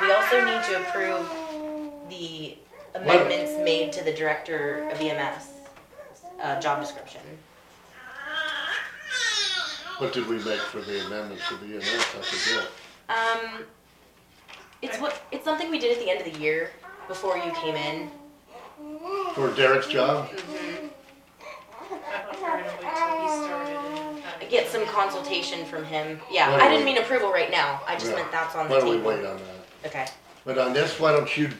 We also need to approve the amendments made to the director of EMS, uh, job description. What did we make for the amendments to the EMS? I forget. Um, it's what, it's something we did at the end of the year, before you came in. For Derek's job? Mm-hmm. I thought we were gonna wait till he started and kind of- Um, Get some consultation from him. Yeah, Why don't I didn't we- mean approval right now, I just Yeah. meant that's on Why the don't we wait table. on that? Okay, But on this, why don't you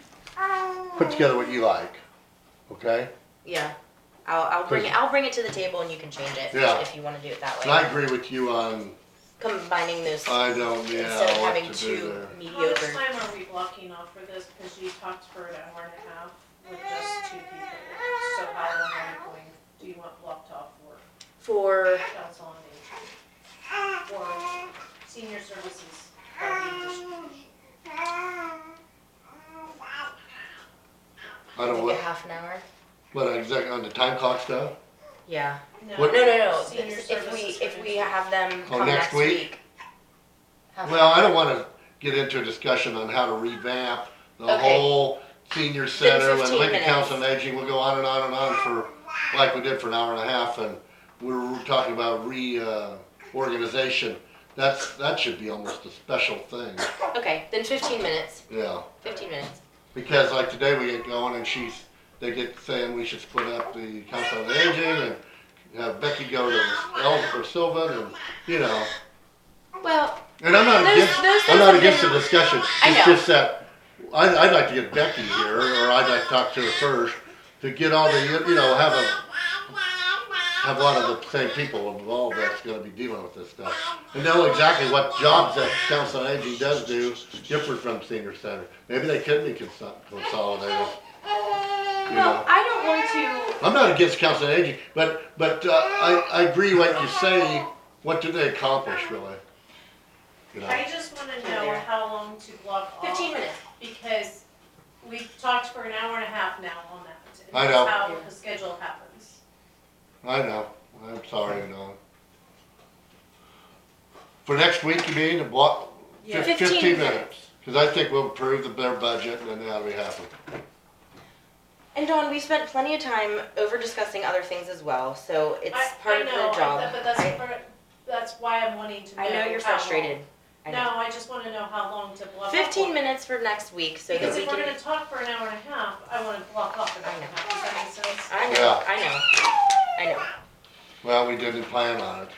put together what you like, okay? yeah. I'll, I'll bring it, I'll bring it to the table and you can change it, Yeah. if you wanna do it that And I way. agree with you on, Combining those, I don't, yeah, instead of what having to do two there. How much mediocre. time are we blocking off for this? Because you talked for an hour and a half with just two people. So how long are we going, do you want blocked off for For, council on aging? Or senior services? Or you just- I don't, like a what, half an hour? what, exactly, on the time clock stuff? Yeah. What- No, no, no. Senior This- If we, services if for we aging. have them Oh, come next next week? week. have Well, I don't wanna get into a discussion on how to revamp the Okay. whole senior center and 15 Lincoln minutes. Council on Aging, we'll go on and on and on for, like we did for an hour and a half, and we were talking about re, uh, organization. That's, that should be almost a special thing, Okay, then fifteen minutes, yeah, fifteen minutes. because like today we get going and she's, they get saying we should split up the Council on Aging and have Becky go to El, or Sylvan and, you know. Well, And I'm not Those- against, those I'm not things against the have been- discussion. I It's know. just that I'd, I'd like to get Becky here, or I'd like to talk to her first to get all the you know have a have a lot of the same people involved that's going to be dealing with this stuff and know exactly what jobs that council on aging does do different from senior center. Maybe they could be consol- consolidated. You know. well, I don't want I'm not against council on aging, but but uh, I I agree what you say. What do they accomplish really? You know. I just wanna know how long to block off. to, fifteen minutes. Because we've talked for an hour and a half now on that. and I know. That's how the schedule happens. I know, I'm sorry, no. For next week, you mean, what, Yeah. fif- fifteen Fifteen minutes? Cause I think we'll approve the, their budget and then that'll be happening. And Dawn, we spent plenty of time over discussing other things as well, so it's I- part I of know, the I- job. But that's, I- part- that's why I'm wanting to know. I know you're how long. frustrated. I know. No, I just wanna know how long to block off. Fifteen minutes for next week, so that Because we if we're can. gonna talk for an hour and a half, I wanna block off an hour and a I know. half, does that make sense? I know, Yeah. I know, I know. Well, we didn't plan on it.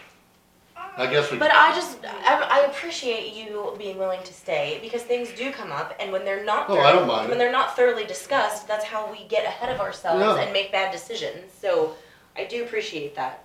I guess we, But I just, I, I appreciate you being willing to stay because things do come up, and when they're not, Oh, I don't mind it. when they're not thoroughly discussed, that's how we get ahead of ourselves Yeah. and make bad decisions. So I do appreciate that.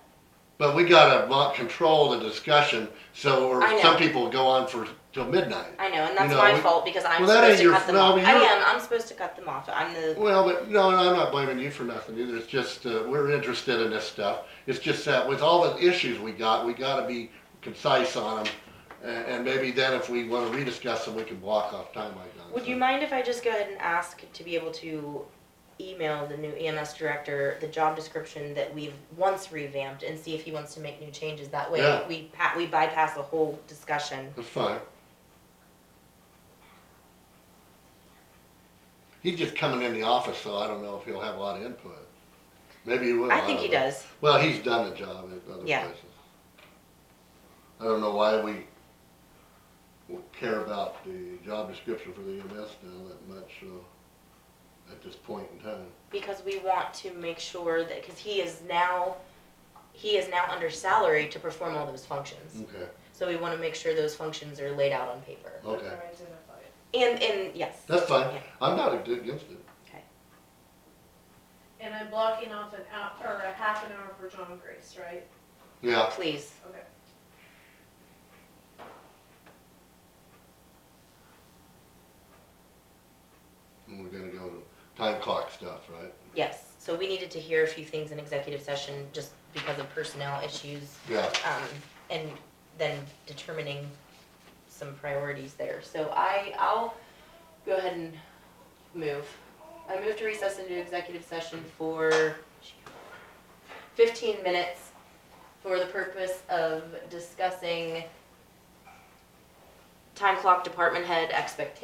but we gotta mo- control the discussion, so, or I know. some people go on for, till midnight. I know, and that's know, my we- fault because I'm Well, that supposed ain't to your- cut them no, off. but I you're- am. I'm supposed to cut them off. I'm the. Well, but, no, no, I'm not blaming you for nothing either, it's just, uh, we're interested in this stuff. It's just that with all the issues we got, we gotta be concise on them. And, and maybe then if we wanna rediscuss them, we can block off time like that. Would you mind if I just go ahead and ask to be able to email the new EMS director the job description that we've once revamped and see if he wants to make new changes? That way, Yeah. we pa- we bypass the whole discussion. That's fine. He's just coming in the office, so I don't know if he'll have a lot of input. Maybe he will. I think he don't know. does. Well, he's done the job at other Yeah. places. I don't know why we care about the job description for the EMS now that much, so, at this point in time. because we want to make sure that because he is now he is now under salary to perform all those functions Okay, so we want to make sure those functions are laid out on paper okay. Or identify it. and and yes Mm. That's fine. Yeah. I'm not against it. And I'm blocking off an hour, or a half an hour for John Grace, right? Yeah, please Okay. and we're gonna go to time clock stuff, right? yes so we needed to hear a few things in executive session just because of personnel issues Yeah. um, and then determining some priorities there so i i'll go ahead and move i move to recess into executive session for 15 minutes for the purpose of discussing time clock department head expectations